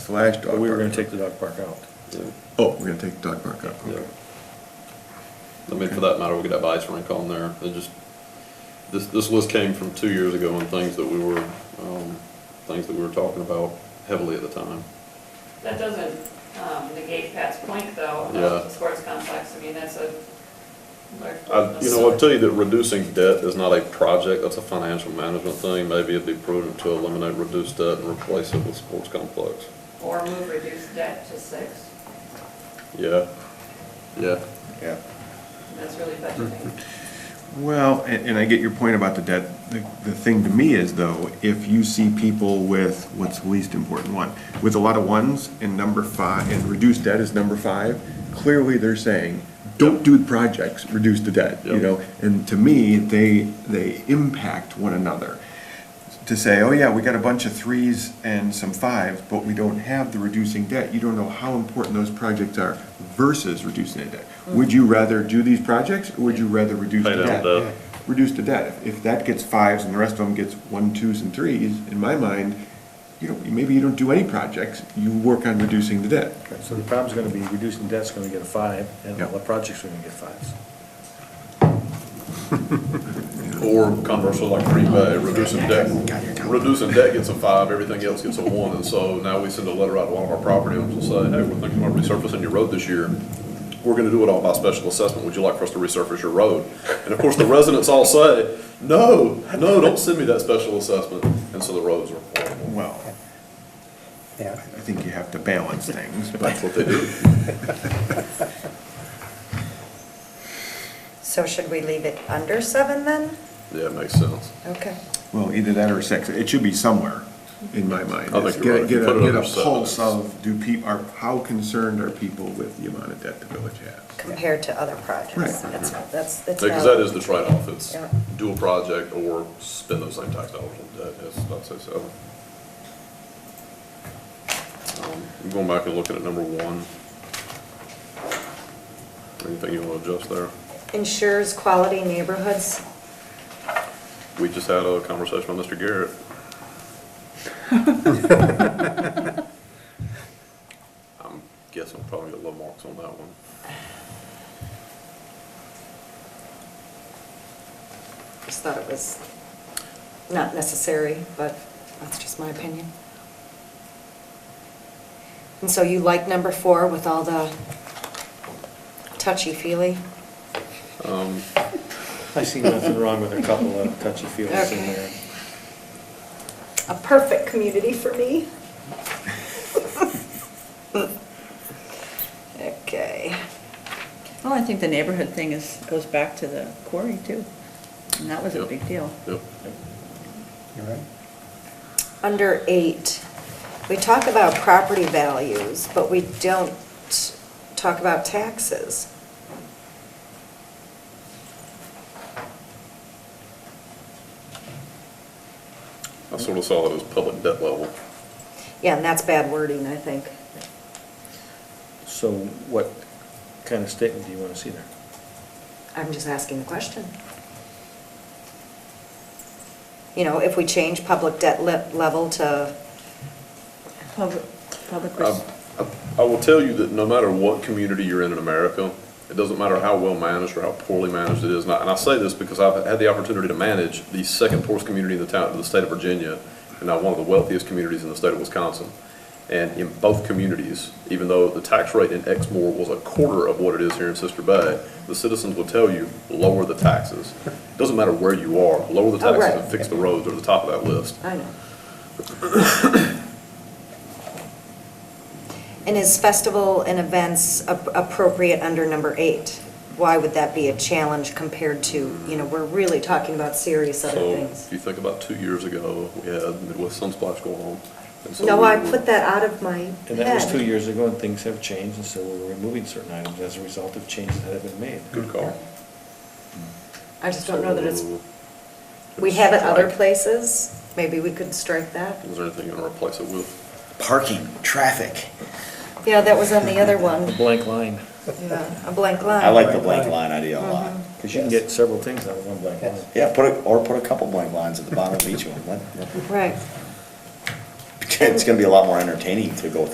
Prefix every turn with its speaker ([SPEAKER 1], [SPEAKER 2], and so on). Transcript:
[SPEAKER 1] Flash dog
[SPEAKER 2] But we were gonna
[SPEAKER 1] park.
[SPEAKER 2] take the dog park out.
[SPEAKER 1] Oh, we're gonna take dog park out, okay.
[SPEAKER 3] I mean, for that matter, we could have ice rink on there. It just, this, this list came from two years ago and things that we were, um, things that we were talking about heavily at the time.
[SPEAKER 4] That doesn't um, negate Pat's point, though, about
[SPEAKER 3] Yeah.
[SPEAKER 4] the sports complex. I mean, that's a large.
[SPEAKER 3] I, Uh, you know, I'll tell you that reducing debt is not a project, that's a financial management thing. Maybe it'd be prudent to eliminate reduced debt and replace it with sports complex.
[SPEAKER 4] Or move reduced debt to six.
[SPEAKER 3] Yeah, yeah.
[SPEAKER 1] Yeah.
[SPEAKER 4] That's really budgeting.
[SPEAKER 1] Well, and, and I get your point about the debt. The, the thing to me is though, if you see people with, what's the least important one? With a lot of ones and number five, and reduced debt is number five, clearly they're saying, don't do the projects, reduce the debt, you
[SPEAKER 3] Yep.
[SPEAKER 1] know? And to me, they, they impact one another. To say, oh yeah, we got a bunch of threes and some fives, but we don't have the reducing debt, you don't know how important those projects are versus reducing the debt. Would you rather do these projects, or would you rather reduce
[SPEAKER 3] Pay
[SPEAKER 1] reduce the
[SPEAKER 3] down
[SPEAKER 1] debt.
[SPEAKER 3] debt.
[SPEAKER 1] Reduce the debt. If- If that gets fives and the rest of them gets one, twos, and threes, in my mind, you know, maybe you don't do any projects, you work on reducing the debt.
[SPEAKER 2] So the problem's gonna be reducing debt's gonna get a five, and all the
[SPEAKER 1] Yeah.
[SPEAKER 2] projects are gonna get fives.
[SPEAKER 3] Or conversely, like Green Bay, reducing debt, reducing debt gets a five, everything else gets a one, and so now we send a letter out to one of our property owners and say, hey, we're thinking about resurfacing your road this year. We're gonna do it all by special assessment, would you like for us to resurface your road? And of course, the residents all say, no, no, don't send me that special assessment, and so the roads are horrible.
[SPEAKER 1] Well, I
[SPEAKER 5] Yeah,
[SPEAKER 1] think you have to balance things, but
[SPEAKER 3] That's what they do.
[SPEAKER 6] So should we leave it under seven then?
[SPEAKER 3] Yeah, it makes sense.
[SPEAKER 6] Okay.
[SPEAKER 1] Well, either that or six, it should be somewhere, in my mind.
[SPEAKER 3] I think
[SPEAKER 1] It's get a-
[SPEAKER 3] you're right. If you
[SPEAKER 1] get a-
[SPEAKER 3] put it
[SPEAKER 1] Get
[SPEAKER 3] under
[SPEAKER 1] a
[SPEAKER 3] seven,
[SPEAKER 1] pulse
[SPEAKER 3] it's-
[SPEAKER 1] of, do people, are, how concerned are people with the amount of debt the village has?
[SPEAKER 6] Compared to other projects.
[SPEAKER 1] Right.
[SPEAKER 6] That's, that's, that's.
[SPEAKER 3] Because that
[SPEAKER 6] valid.
[SPEAKER 3] is the trade-off, it's
[SPEAKER 6] Yeah.
[SPEAKER 3] do a project or spend those same tax dollars on debt, yes, I'd say so. Um, I'm Going back and looking at number one. Anything you want to adjust there?
[SPEAKER 6] Ensures quality neighborhoods.
[SPEAKER 3] We just had a conversation with Mr. Garrett. I'm guessing I'll probably get low marks on that one.
[SPEAKER 6] Just thought it was not necessary, but that's just my opinion. And so you like number four with all the touchy-feely?
[SPEAKER 3] Um,
[SPEAKER 2] I see nothing wrong with a couple of touchy feelings in there.
[SPEAKER 6] A perfect community for me. Okay.
[SPEAKER 7] Well, Oh, I think the neighborhood thing is, goes back to the quarry too, and that was a
[SPEAKER 3] Yep.
[SPEAKER 7] big deal.
[SPEAKER 3] Yep,
[SPEAKER 5] you're right.
[SPEAKER 6] Under eight, we talk about property values, but we don't talk about taxes.
[SPEAKER 3] I sort of saw it as public debt level.
[SPEAKER 6] Yeah, and that's bad wording, I think.
[SPEAKER 2] So what kind of statement do you wanna see there?
[SPEAKER 6] I'm just asking the question. You know, if we change public debt le- level to,
[SPEAKER 7] Public, public,
[SPEAKER 3] I
[SPEAKER 7] res-
[SPEAKER 3] I- I will tell you that no matter what community you're in in America, it doesn't matter how well managed or how poorly managed it is. And I and I say this because I've had the opportunity to manage the second poorest community in the town, in the state of Virginia, and now one of the wealthiest communities in the state of Wisconsin. And in both communities, even though the tax rate in Exmoor was a quarter of what it is here in Sister Bay, the citizens will tell you, lower the taxes. Doesn't matter where you are, lower the
[SPEAKER 6] Oh, right.
[SPEAKER 3] taxes and fix the roads, they're at the top of that list.
[SPEAKER 6] I know. And is festival and events ap- appropriate under number eight? Why would that be a challenge compared to, you know, we're really talking about serious other
[SPEAKER 3] So
[SPEAKER 6] things?
[SPEAKER 3] if you think about two years ago, we had Midwest Sunsplash go on. and so
[SPEAKER 6] No,
[SPEAKER 3] we
[SPEAKER 6] I
[SPEAKER 3] were-
[SPEAKER 6] put that out of my head.
[SPEAKER 2] And that was two years ago, and things have changed, and so we're removing certain items as a result of changes that have been made.
[SPEAKER 3] Good call.
[SPEAKER 6] I just don't know that it's,
[SPEAKER 3] So-
[SPEAKER 6] we have it other
[SPEAKER 3] Strike.
[SPEAKER 6] places, maybe we could strike that.
[SPEAKER 3] Is there anything you want to replace it with?
[SPEAKER 5] Parking, traffic.
[SPEAKER 6] Yeah, that was on the other
[SPEAKER 2] The
[SPEAKER 6] one,
[SPEAKER 2] blank line,
[SPEAKER 6] yeah, a blank line.
[SPEAKER 5] I like the blank line idea a lot.
[SPEAKER 2] because you can get several things out of one blank line.
[SPEAKER 5] Yeah, put a, or put a couple blank lines at the bottom of each one. Let- let-
[SPEAKER 6] Right.
[SPEAKER 5] It's gonna be a lot more entertaining to go